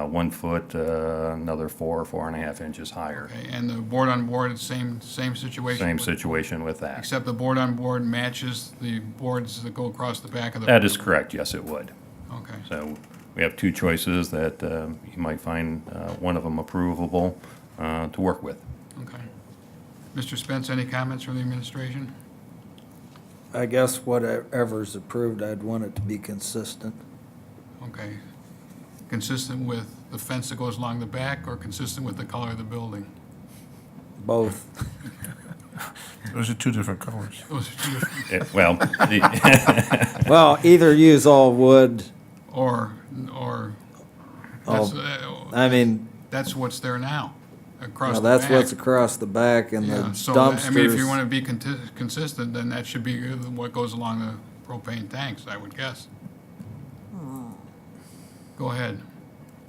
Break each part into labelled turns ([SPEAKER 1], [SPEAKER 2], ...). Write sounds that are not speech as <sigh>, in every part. [SPEAKER 1] uh, one foot, uh, another four, four and a half inches higher.
[SPEAKER 2] And the board-on-board, same, same situation?
[SPEAKER 1] Same situation with that.
[SPEAKER 2] Except the board-on-board matches the boards that go across the back of the?
[SPEAKER 1] That is correct, yes, it would.
[SPEAKER 2] Okay,
[SPEAKER 1] So we have two choices that uh, you might find uh, one of them approvable uh, to work with.
[SPEAKER 2] okay. Mr. Spence, any comments from the administration?
[SPEAKER 3] I guess whatever's approved, I'd want it to be consistent.
[SPEAKER 2] Okay. Consistent with the fence that goes along the back or consistent with the color of the building? <laughs>
[SPEAKER 3] Both.
[SPEAKER 4] Those are two different colors.
[SPEAKER 2] Those are two different-
[SPEAKER 1] It- Eh, Well, the-
[SPEAKER 2] <laughs>
[SPEAKER 1] <laughs>
[SPEAKER 3] Well, either use all wood,
[SPEAKER 2] Or, or,
[SPEAKER 3] Oh.
[SPEAKER 2] that's, uh,
[SPEAKER 3] I mean,
[SPEAKER 2] that's what's there now, across
[SPEAKER 3] well,
[SPEAKER 2] the back.
[SPEAKER 3] that's what's across the back and the
[SPEAKER 2] Yeah, so, I mean, if you want
[SPEAKER 3] dumpsters.
[SPEAKER 2] to be conti- consistent, then that should be uh, what goes along the propane tanks, I would guess.
[SPEAKER 5] Hmm.
[SPEAKER 2] Go ahead.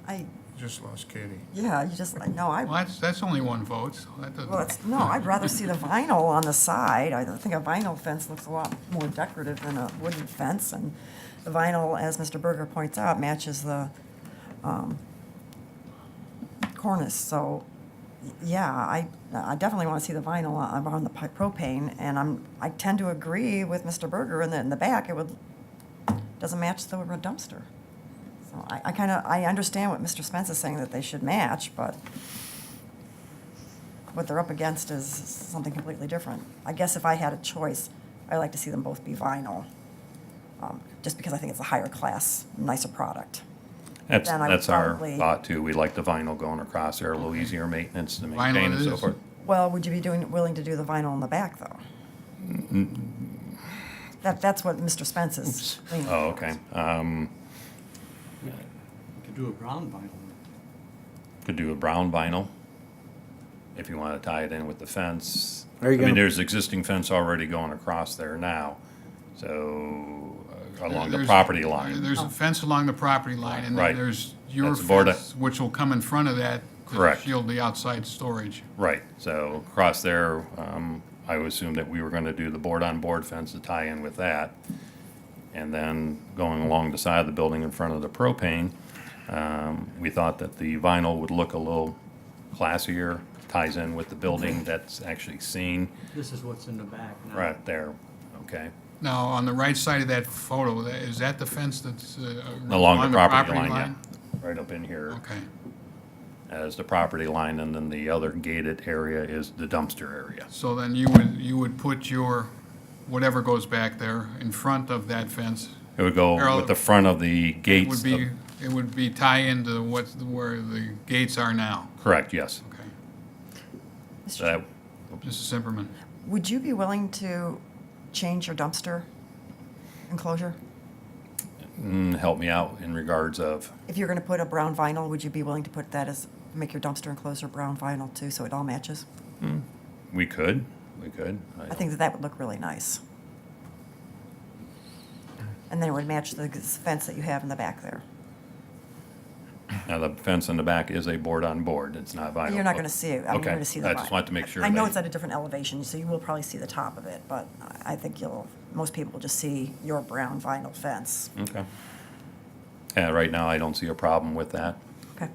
[SPEAKER 5] I,
[SPEAKER 4] Just lost Katie.
[SPEAKER 5] yeah, you just, like no,
[SPEAKER 2] Well,
[SPEAKER 5] I,
[SPEAKER 2] that's, that's only one vote, so that
[SPEAKER 5] well,
[SPEAKER 2] doesn't,
[SPEAKER 5] it's, no, I'd rather see the vinyl on the side. I think a vinyl fence looks a lot more decorative than a wooden fence, and the vinyl, as Mr. Berger points out, matches the, um, cornice, so, yeah, I, I definitely want to see the vinyl on on the pi- propane, and I'm, I tend to agree with Mr. Berger, in the, in the back, it would, doesn't match the dumpster. So I, I kind of, I understand what Mr. Spence is saying, that they should match, but what they're up against is something completely different. I guess if I had a choice, I'd like to see them both be vinyl, um, just because I think it's a higher class, nicer product.
[SPEAKER 1] that's,
[SPEAKER 5] Then I would
[SPEAKER 1] that's our
[SPEAKER 5] probably-
[SPEAKER 1] thought too. We like the vinyl going across there, a little easier maintenance to
[SPEAKER 2] Vinyl
[SPEAKER 1] maintain and
[SPEAKER 2] it
[SPEAKER 1] so
[SPEAKER 2] is.
[SPEAKER 1] forth.
[SPEAKER 5] Well, would you be doing, willing to do the vinyl in the back, though? That, that's what Mr. Spence is leaning
[SPEAKER 1] Oh,
[SPEAKER 5] towards.
[SPEAKER 1] okay. Um,
[SPEAKER 6] We Could do a brown vinyl.
[SPEAKER 1] Could do a brown vinyl if you want to tie it in with the fence.
[SPEAKER 3] Are you
[SPEAKER 1] I mean,
[SPEAKER 3] gonna-
[SPEAKER 1] there's existing fence already going across there now, so uh, along the
[SPEAKER 2] There's-
[SPEAKER 1] property line.
[SPEAKER 5] Oh.
[SPEAKER 2] There's a fence along the property line, and
[SPEAKER 1] Right.
[SPEAKER 2] then there's your
[SPEAKER 1] That's border.
[SPEAKER 2] fence, which will come in front of that to
[SPEAKER 1] Correct.
[SPEAKER 2] shield the outside storage.
[SPEAKER 1] Right, so across there, um, I would assume that we were gonna do the board-on-board fence to tie in with that. And then going along the side of the building in front of the propane, um, we thought that the vinyl would look a little classier, ties in with the building that's actually seen
[SPEAKER 6] This is what's in the back now.
[SPEAKER 1] right there, okay?
[SPEAKER 2] Now, on the right side of that photo, tha- is that the fence that's uh,
[SPEAKER 1] Along the property line, yeah, right up in here
[SPEAKER 2] Okay,
[SPEAKER 1] as the property line, and then the other gated area is the dumpster area.
[SPEAKER 2] so then you would, you would put your, whatever goes back there, in front of that fence,
[SPEAKER 1] It would go
[SPEAKER 2] Parallel-
[SPEAKER 1] with the front of the
[SPEAKER 2] It
[SPEAKER 1] gates.
[SPEAKER 2] would
[SPEAKER 1] of-
[SPEAKER 2] be, it would be tie into what, where the gates are now.
[SPEAKER 1] Correct, yes.
[SPEAKER 2] Okay.
[SPEAKER 5] Mr.
[SPEAKER 1] So that-
[SPEAKER 2] Mrs. Simperman,
[SPEAKER 5] Would you be willing to change your dumpster enclosure?
[SPEAKER 1] Mm, help me out in regards of,
[SPEAKER 5] If you're going to put a brown vinyl, would you be willing to put that as, make your dumpster enclosure brown vinyl too, so it all matches?
[SPEAKER 1] we could, we could.
[SPEAKER 5] I think that that would look really nice. And then it would match the fence that you have in the back there.
[SPEAKER 1] Now, the fence in the back is a board on board. It's not vinyl.
[SPEAKER 5] You're not going to see it. I mean,
[SPEAKER 1] Okay.
[SPEAKER 5] you're going to see the.
[SPEAKER 1] I just
[SPEAKER 5] vinyl.
[SPEAKER 1] want to make sure.
[SPEAKER 5] I know
[SPEAKER 1] that-
[SPEAKER 5] it's at a different elevation, so you will probably see the top of it, but I- I think you'll, most people will just see your brown vinyl fence.
[SPEAKER 1] Okay. Yeah, right now, I don't see a problem with that.
[SPEAKER 5] Okay.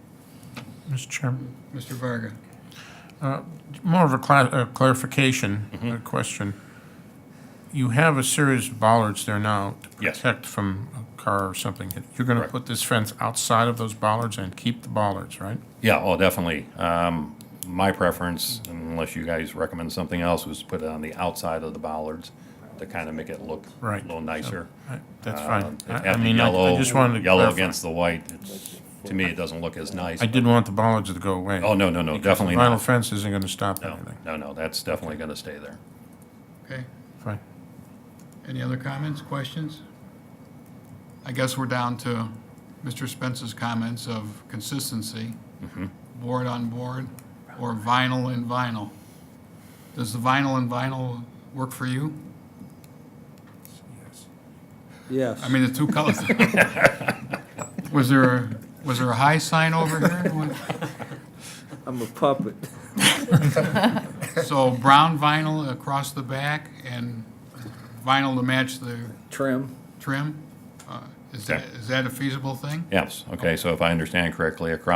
[SPEAKER 4] Mr. Chairman,
[SPEAKER 2] Mr. Varga,
[SPEAKER 4] more of a cla- uh, clarification,
[SPEAKER 1] Mm-hmm.
[SPEAKER 4] a question. You have a series of bollards there now to
[SPEAKER 1] Yes.
[SPEAKER 4] protect from a car or something. You're going to
[SPEAKER 1] Correct.
[SPEAKER 4] put this fence outside of those bollards and keep the bollards, right?
[SPEAKER 1] Yeah, oh, definitely. Um, my preference, unless you guys recommend something else, was to put it on the outside of the bollards to kind of make it look a
[SPEAKER 4] Right.
[SPEAKER 1] little nicer.
[SPEAKER 4] I- That's
[SPEAKER 1] Um,
[SPEAKER 4] fine.
[SPEAKER 1] if
[SPEAKER 4] I- I
[SPEAKER 1] having
[SPEAKER 4] mean, I-
[SPEAKER 1] yellow-
[SPEAKER 4] I just wanted to
[SPEAKER 1] Yellow
[SPEAKER 4] clarify.
[SPEAKER 1] against the white, it's, to me, it doesn't look as nice.
[SPEAKER 4] I didn't want the bollards to go away.
[SPEAKER 1] Oh, no, no, no,
[SPEAKER 4] Because the
[SPEAKER 1] definitely
[SPEAKER 4] Vinyl
[SPEAKER 1] not.
[SPEAKER 4] fence isn't going to stop
[SPEAKER 1] No,
[SPEAKER 4] anything.
[SPEAKER 1] no, no, that's definitely going to stay there.
[SPEAKER 2] okay?
[SPEAKER 4] Fine.
[SPEAKER 2] Any other comments, questions? I guess we're down to Mr. Spence's comments of consistency, board on board, or vinyl and vinyl. Does the vinyl and vinyl work for you?
[SPEAKER 3] Yes.
[SPEAKER 2] I mean, the two colors. Was there, a- was there a high sign over here? What-
[SPEAKER 3] I'm a puppet.
[SPEAKER 2] So brown vinyl across the back and vinyl to match the
[SPEAKER 3] Trim.
[SPEAKER 2] trim? Uh, Is
[SPEAKER 1] Okay.
[SPEAKER 2] that, is that a feasible thing?
[SPEAKER 1] Yes, okay, so if I understand correctly, across